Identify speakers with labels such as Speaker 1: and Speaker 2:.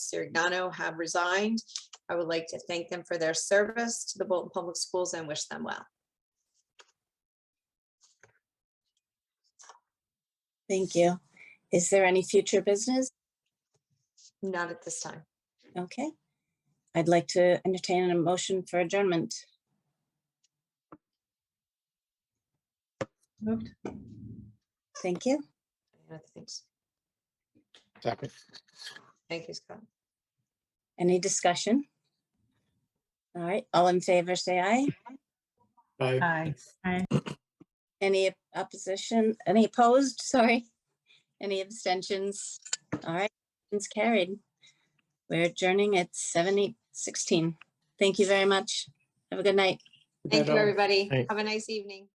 Speaker 1: Sirigano have resigned. I would like to thank them for their service to the Bolton Public Schools and wish them well.
Speaker 2: Thank you. Is there any future business?
Speaker 1: Not at this time.
Speaker 2: Okay. I'd like to entertain a motion for adjournment.
Speaker 3: Moved.
Speaker 2: Thank you.
Speaker 1: I don't think so.
Speaker 4: Second.
Speaker 1: Thank you, Scott.
Speaker 2: Any discussion? All right, all in favor, say aye.
Speaker 1: Uh,
Speaker 4: Aye.
Speaker 3: Aye.
Speaker 2: Any opposition, any opposed, sorry? Any abstentions? All right, it's carried. We're adjourning at seven eight sixteen. Thank you very much. Have a good night.
Speaker 1: Thank you, everybody.
Speaker 4: Thanks.
Speaker 1: Have a nice evening.